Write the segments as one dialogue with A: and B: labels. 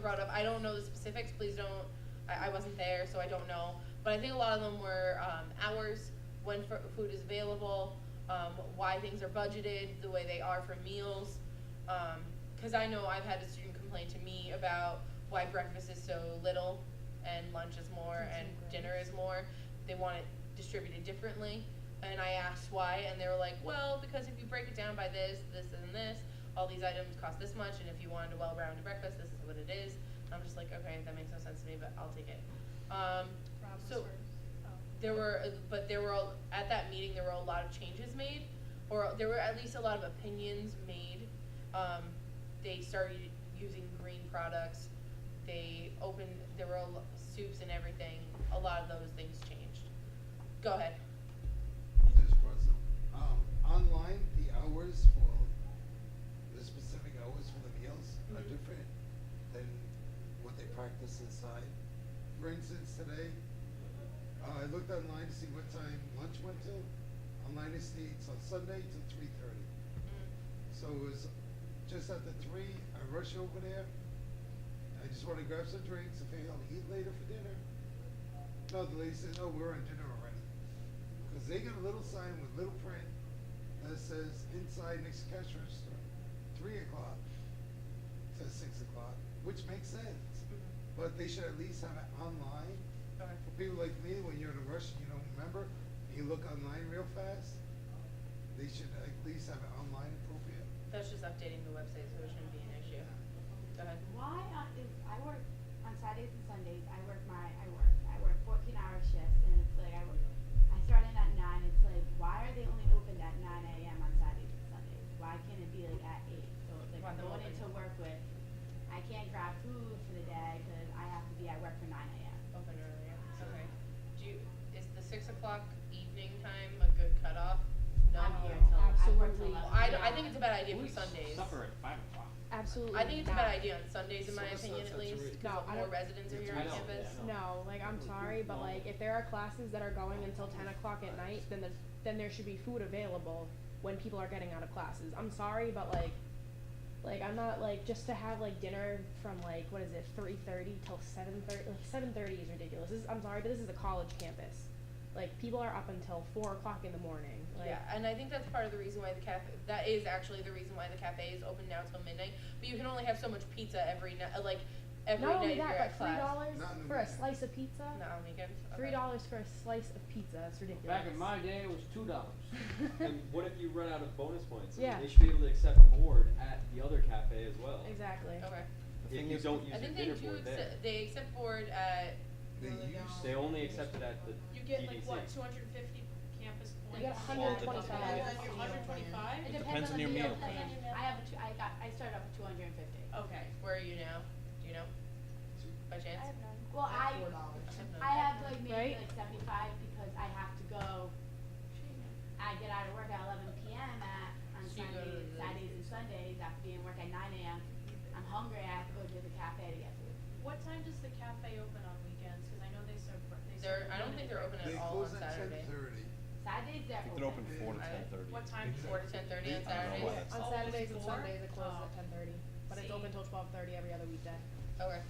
A: brought up. I don't know the specifics. Please don't. I, I wasn't there, so I don't know. But I think a lot of them were um, hours, when fr- food is available, um, why things are budgeted the way they are for meals. Because I know I've had a student complain to me about why breakfast is so little and lunch is more
B: That's
A: and
B: so gross.
A: dinner is more. They want it distributed differently. And I asked why, and they were like, well, because if you break it down by this, this, and this, all these items cost this much, and if you wanted a well rounded breakfast, this is what it is. And I'm just like, okay, that makes no sense to me, but I'll take it. Um,
C: Rob
A: so-
C: was first. Oh.
A: there were, but there were, al- at that meeting, there were a lot of changes made, or there were at least a lot of opinions made. Um, they started using green products, they opened, there were a lo- soups and everything, a lot of those things changed. Go ahead.
D: I just brought some. Um, online, the hours for the specific hours for the meals are
A: Mhm.
D: different than what they practice inside. For instance, today, uh, I looked online to see what time lunch went to. Online it states on Sunday till three thirty. So it was just after three, I rush over there. I just want to grab some drinks and figure out to eat later for dinner. No, the lady said, "Oh, we're on dinner already." Because they got a little sign with little print that says inside next to cash register, three o'clock to six o'clock, which makes sense.
A: Mhm.
D: But they should at least have it online.
A: Okay.
D: For people like me, when you're in a rush, you don't remember, you look online real fast. They should at least have it online appropriate.
A: That's just updating the website, so it shouldn't be an issue. Go ahead.
E: Why on, if I work on Saturdays and Sundays, I work my, I work, I work fourteen hour shifts and it's like I work, I start in at nine, it's like, why are they only opened at nine AM on Saturdays and Sundays? Why can't it be like at eight? So it's like
A: Want
E: I'm
A: them
E: going
A: open.
E: into work with, I can't grab food for the day because I have to be at work for nine AM.
A: Open earlier, okay. Do you, is the six o'clock evening time a good cutoff?
B: um,
A: No.
E: I'm here
B: No,
E: till, I work till
B: absolutely.
E: eleven.
A: Well, I, d- I think it's a bad idea
F: We
A: for Sundays.
F: Supper at five o'clock.
B: Absolutely.
A: I think it's a
B: not.
A: bad idea on Sundays, in my
D: Someone
A: opinion, at
D: said that's
A: least,
D: right.
B: No,
A: because
B: I
A: more
B: don't-
A: residents are here
F: I
A: on
F: know,
A: campus.
F: yeah, I know.
B: No, like I'm sorry, but like if there are classes that are going until ten o'clock at night, then there's then there should be food available when people are getting out of classes. I'm sorry, but like, like I'm not like just to have like dinner from like what is it three thirty till seven thirty like seven thirty is ridiculous. This is, I'm sorry, but this is a college campus. Like people are up until four o'clock in the morning. Like,
A: Yeah, and I think that's part of the reason why the cafe, that is actually the reason why the cafe is open now till midnight, but you can only have so much pizza every night, like, every
B: Not
A: night
B: only
A: if you're
B: that,
A: at
B: but three
A: class.
B: dollars
D: Not in the
B: for a
D: weekend.
B: slice of pizza.
A: Not on weekends, okay.
B: Three dollars for a slice of pizza. That's ridiculous.
F: Back in my day, it was two dollars.
G: And what if you run out of bonus points? I mean,
B: Yeah.
G: They should be able to accept board at the other cafe as well.
B: exactly.
A: Okay,
G: If
D: thing
G: you
D: is-
G: don't
A: I
G: use your
A: think they
G: dinner
A: do,
G: board there.
A: accept- they accept board at,
D: They
A: Well, they
D: used.
A: don't.
G: They only accept it at the
C: You get like
G: DDC.
C: what, two hundred and fifty campus
B: You
C: points?
B: get
H: Well, it
B: 125.
C: And then you're hundred twenty-five?
E: It
H: depends on
E: the
H: your
E: meal
H: meal
E: plan.
C: plan.
E: I have a two, I got, I started off with two hundred and fifty.
C: Okay.
A: where are you now? Do you know, by chance?
E: Well, I,
A: dollars.
E: I have like maybe
B: Right?
E: like seventy-five because I have to go, I get out of work at eleven PM at, on
A: So you go to
E: Sundays,
A: the-
E: Saturdays and Sundays, after being at work at nine AM, I'm hungry, I have to go to the cafe to get food.
C: What time does the cafe open on weekends? Cause I know they serve, br- they
A: They're,
C: serve.
A: I don't think they're open
D: They
A: at all on
D: close at ten
A: Saturday.
D: thirty.
E: Saturdays
H: I
E: they're
H: think
E: open.
H: they're open four to
A: I-
H: ten thirty.
C: What time?
A: Four to ten thirty on
H: I don't know
A: Saturdays?
H: why that's-
C: Oh,
B: On Saturdays and
C: before?
B: Sundays, it closes
C: Oh.
B: at ten thirty, but it's
C: See.
B: open till twelve thirty every other weekday.
A: Okay,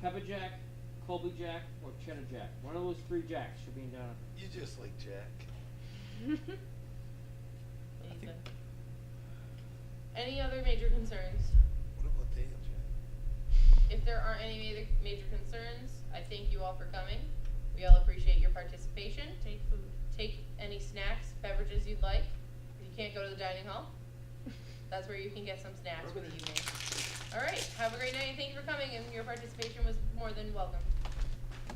F: Pepper Jack, Colby Jack, or Cheddar Jack. One of those three jacks should be in down.
H: You just like Jack.
A: what do you
H: think-
A: think? Any other major concerns?
H: What about Dale Jack?
A: If there aren't any major, major concerns, I thank you all for coming. We all appreciate your participation.
C: Take food.
A: Take any snacks, beverages you'd like. If you can't go to the dining hall, that's where you can get some snacks for the evening. All right, have a great night, and thank you for coming, and your participation was more than welcome.